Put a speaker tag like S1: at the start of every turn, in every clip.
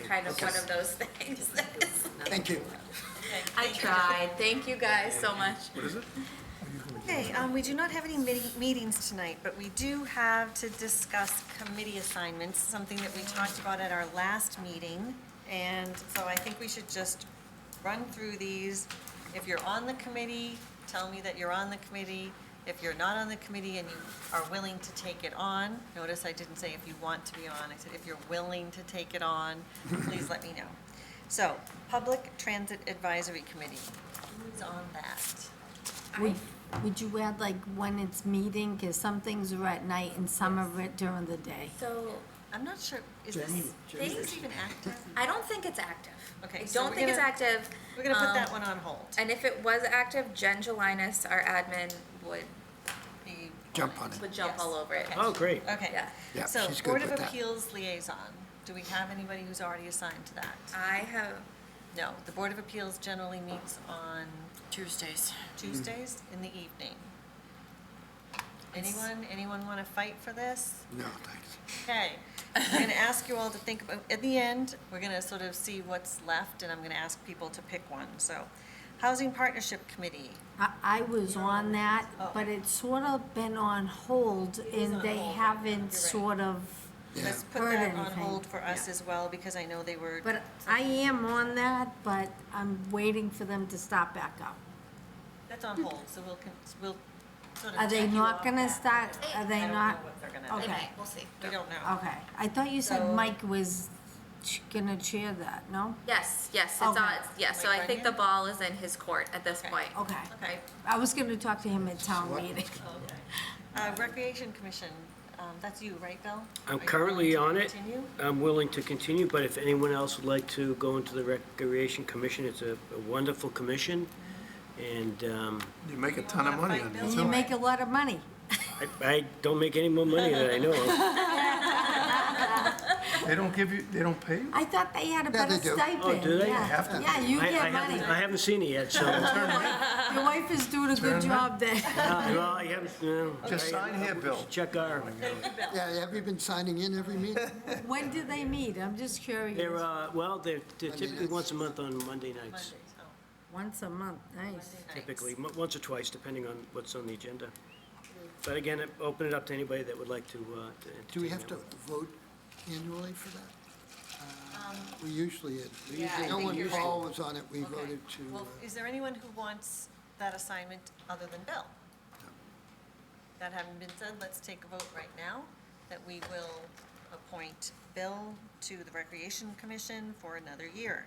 S1: kind of
S2: Okay.
S1: one of those things.
S2: Thank you.
S1: I tried. Thank you guys so much.
S3: Okay, um, we do not have any meeti- meetings tonight, but we do have to discuss committee assignments, something that we talked about at our last meeting. And so I think we should just run through these. If you're on the committee, tell me that you're on the committee. If you're not on the committee and you are willing to take it on, notice I didn't say if you want to be on, I said if you're willing to take it on, please let me know. So, Public Transit Advisory Committee, who's on that?
S4: Would, would you add like when it's meeting, because some things are at night and some are at- during the day?
S1: So
S3: I'm not sure, is this,
S2: Jamie,
S3: is
S2: Jamie.
S3: this even active?
S1: I don't think it's active.
S3: Okay,
S1: I
S3: so
S1: don't
S3: we're
S1: think it's
S3: gonna-
S1: active.
S3: We're gonna put
S1: Um,
S3: that one on hold.
S1: And if it was active, Jen Jelinas, our admin, would
S3: The-
S2: Jump on
S1: would
S2: it.
S1: jump all over it.
S5: Oh, great.
S3: Okay,
S1: Yeah.
S2: Yeah,
S3: so
S2: she's good
S3: Board of
S2: with that.
S3: Appeals Liaison, do we have anybody who's already assigned to that?
S1: I have.
S3: No, the Board of Appeals generally meets on
S6: Tuesdays.
S3: Tuesdays
S2: Mm-hmm.
S3: in the evening. Anyone, anyone wanna fight for this?
S2: No, thanks.
S3: Okay, I'm gonna ask you all to think about, at the end, we're gonna sort of see what's left, and I'm gonna ask people to pick one, so. Housing Partnership Committee,
S4: I, I was on that,
S3: Oh.
S4: but it's sort of been on hold
S3: is
S4: and
S3: on
S4: they
S3: hold, you're
S4: haven't
S3: right.
S4: sort of,
S2: Yeah,
S3: let's put
S4: Heard
S3: that on
S4: anything.
S3: hold for us as well, because I know they were.
S4: but I am on that, but I'm waiting for them to stop back up.
S3: That's on hold, so we'll, con- we'll sort of.
S4: Are they
S3: check you
S4: not
S3: off
S4: gonna
S3: that.
S4: start, are
S3: I
S4: they
S3: don't know
S4: not?
S3: what they're gonna
S4: Okay.
S3: do.
S1: We'll see.
S3: We don't know.
S4: Okay, I thought you
S3: So-
S4: said Mike was ch- gonna chair that, no?
S1: Yes, yes, it's
S4: Okay.
S1: on, yes, so I
S3: Like
S1: think
S3: Brendan?
S1: the ball is in his court at this
S3: Okay.
S1: point.
S4: Okay,
S3: Okay.
S4: I was gonna talk to him at town
S2: Select-
S4: meeting.
S3: Okay. Uh, Recreation Commission, um, that's you, right, Bill? Are
S5: I'm
S3: you
S5: currently
S3: willing
S5: on
S3: to
S5: it.
S3: Continue?
S5: I'm willing to continue, but if anyone else would like to go into the Recreation Commission, it's a a wonderful commission. And um,
S2: You make a
S3: You
S2: ton of
S3: wanna
S2: money
S3: fight
S2: on
S3: Bill?
S2: this.
S4: And you
S3: all
S4: make a lot of money.
S5: I, I don't make any more money than I know of.
S7: They don't give you, they don't pay you?
S4: I thought they had
S2: Yeah,
S4: a better
S2: they do.
S4: stipend.
S5: Oh, do they?
S4: Yeah.
S2: Have to.
S4: Yeah, you
S5: I, I
S4: get money.
S5: haven't, I haven't seen it yet, so. Uh,
S4: Your wife is doing a good
S7: Turn
S4: job there.
S5: well, I haven't, no.
S7: Just
S5: I-
S7: sign here, Bill.
S5: Check
S2: Oh
S5: our,
S2: Yeah, have you been signing in every meeting?
S4: When do they meet? I'm just
S5: they're,
S4: curious.
S5: uh, well, they're they're
S2: Monday
S5: typically
S2: nights.
S5: once a month on Monday
S3: Mondays,
S5: nights.
S3: oh,
S4: Once a month, nice.
S3: Monday nights.
S5: Typically, mo- once or twice, depending on what's on the agenda. But again, I- open it up to anybody that would like to. uh, to
S2: Do we
S5: entertain
S2: have
S5: that
S2: to
S5: one.
S2: vote annually for that? We usually,
S1: Um, Yeah, I
S2: no
S1: think
S2: one,
S1: you're right.
S2: Paul was on it, we
S3: Okay.
S2: voted to,
S3: Well,
S2: uh,
S3: is there anyone who wants that assignment other than Bill? That having been said, let's take a vote right now that we will appoint Bill to the Recreation Commission for another year.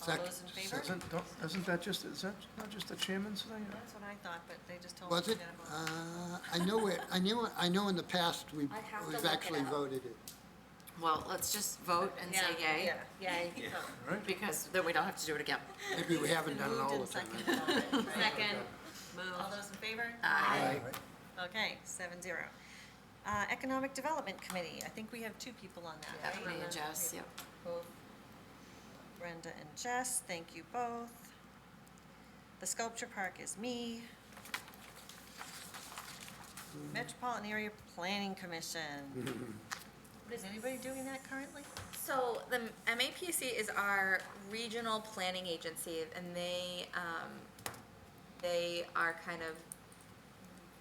S3: All
S2: Second.
S3: those in favor? That's
S7: Isn't, don't- isn't that just, is that not just the chairman's thing?
S3: what I thought, but they just told me.
S2: was it?
S3: to vote.
S2: Uh, I know, it- I knew, I know in the past, we've,
S1: I'd have to
S2: we've
S1: look it
S2: actually
S1: up.
S2: voted it.
S6: Well, let's just vote and say yay,
S3: Yeah, yeah, yay.
S6: because then we don't have to do it again.
S2: Maybe we haven't done it all the
S3: Moved
S2: time.
S3: and seconded. All right.
S6: Second.
S3: All those in favor?
S2: Aye.
S3: Okay, seven zero. Uh, Economic Development Committee, I think we have two people on that, right?
S6: Me and Jess, yep.
S3: Both Brenda and Jess, thank you both. The Sculpture Park is me. Metropolitan Area Planning Commission. Is anybody doing that currently?
S1: So the MAPC is our regional planning agency, and they, um, they are kind of,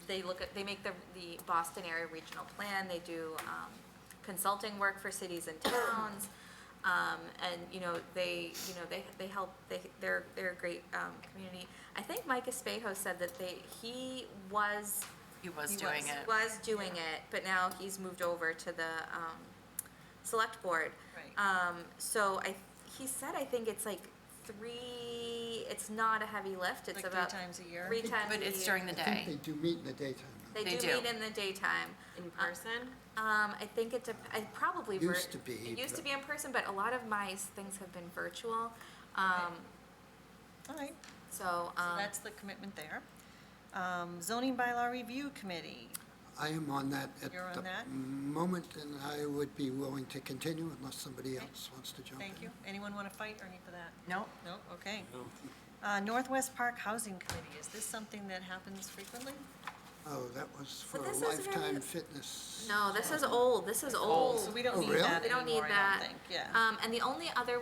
S1: they look at, they make the, the Boston area regional plan, they do, um, consulting work for cities and towns. Um, and, you know, they, you know, they, they help, they, they're, they're a great, um, community. I think Mike Espejo said that they, he was,
S6: He was doing it.
S1: was doing it, but now he's moved over to the um, select board.
S3: Right.
S1: Um, so I, he said, I think it's like three. It's not a heavy lift. It's
S3: Like
S1: about
S3: three times a year?
S1: Three times.
S6: But
S1: a
S6: it's
S1: year.
S6: during the
S2: I think they
S6: day.
S2: do meet in the daytime.
S1: They,
S6: They
S1: do,
S6: do.
S1: meet in the daytime.
S6: In person?
S1: Um, I think it dep I probably vir-
S2: Used to be,
S1: It used to
S2: but-
S1: be in person, but a lot of my s- things have been virtual. Um,
S3: All right,
S1: so,
S3: so
S1: um,
S3: that's the commitment there. Um, Zoning Bylaw Review Committee,
S2: I am on that at
S3: You're on
S2: the
S3: that?
S2: moment, and I would be willing to continue unless somebody
S3: Okay.
S2: else wants to jump in.
S3: thank you. Anyone want to fight or need for that?
S6: Nope.
S3: No, okay. Uh, Northwest Park Housing Committee, is this something that happens frequently?
S2: Oh, that was for
S1: But
S2: a
S1: this is very-
S2: lifetime fitness.
S1: no, this is old. This is old.
S3: So we don't
S2: Oh,
S3: need
S2: really?
S3: that
S1: We don't need
S3: anymore, I
S1: that.
S3: don't think, yeah.
S1: Um, and the only other one.